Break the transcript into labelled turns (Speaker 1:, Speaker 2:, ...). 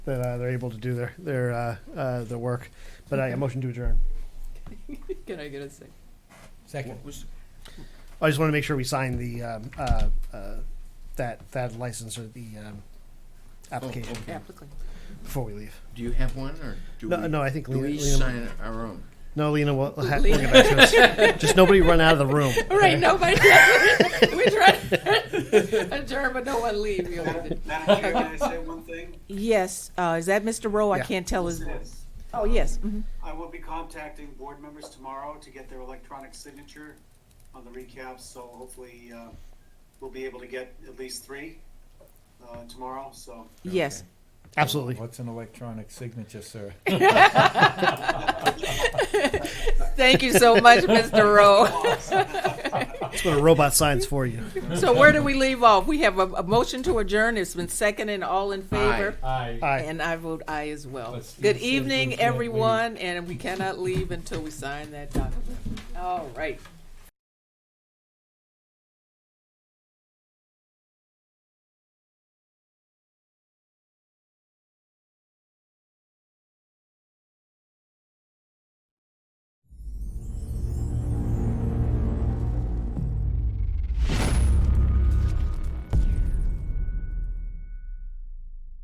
Speaker 1: that uh, they're able to do their their uh, uh, their work. But I motion to adjourn.
Speaker 2: Can I get a second?
Speaker 3: Second.
Speaker 1: I just want to make sure we sign the um, uh, uh, that that license or the um, application
Speaker 2: Yeah, quickly.
Speaker 1: before we leave.
Speaker 4: oh, Do you have one, or Oh, do
Speaker 1: No,
Speaker 4: we,
Speaker 1: no, I think
Speaker 4: do
Speaker 1: Lena.
Speaker 4: we
Speaker 1: Lena
Speaker 4: sign our own?
Speaker 1: no, Lena will ha- bring it back to us. Just nobody run out of the room.
Speaker 2: All right,
Speaker 1: okay?
Speaker 2: nobody. we tried adjourn, but no one leave. You know.
Speaker 5: Madam Chair, can I say one thing?
Speaker 6: Yes, uh, is that Mr. Rowe? I
Speaker 1: Yeah.
Speaker 6: can't tell his,
Speaker 5: Yes.
Speaker 6: oh, yes.
Speaker 2: mm-hmm,
Speaker 6: mhm.
Speaker 5: I will be contacting board members tomorrow to get their electronic signature on the recaps, so hopefully, uh, we'll be able to get at least three, uh, tomorrow, so.
Speaker 6: Yes,
Speaker 1: Absolutely.
Speaker 3: What's an electronic signature, sir?
Speaker 2: Thank you so much, Mr. Rowe.
Speaker 1: That's what a robot signs for you.
Speaker 2: so where do we leave off? We have a, a motion to adjourn. It's been seconded. and all in favor.
Speaker 3: Aye.
Speaker 1: Aye.
Speaker 2: And I vote aye as well.
Speaker 3: Let's-
Speaker 2: Good
Speaker 3: let's- let's
Speaker 2: evening,
Speaker 3: not leave.
Speaker 2: everyone, and we cannot leave until we sign that document. All right.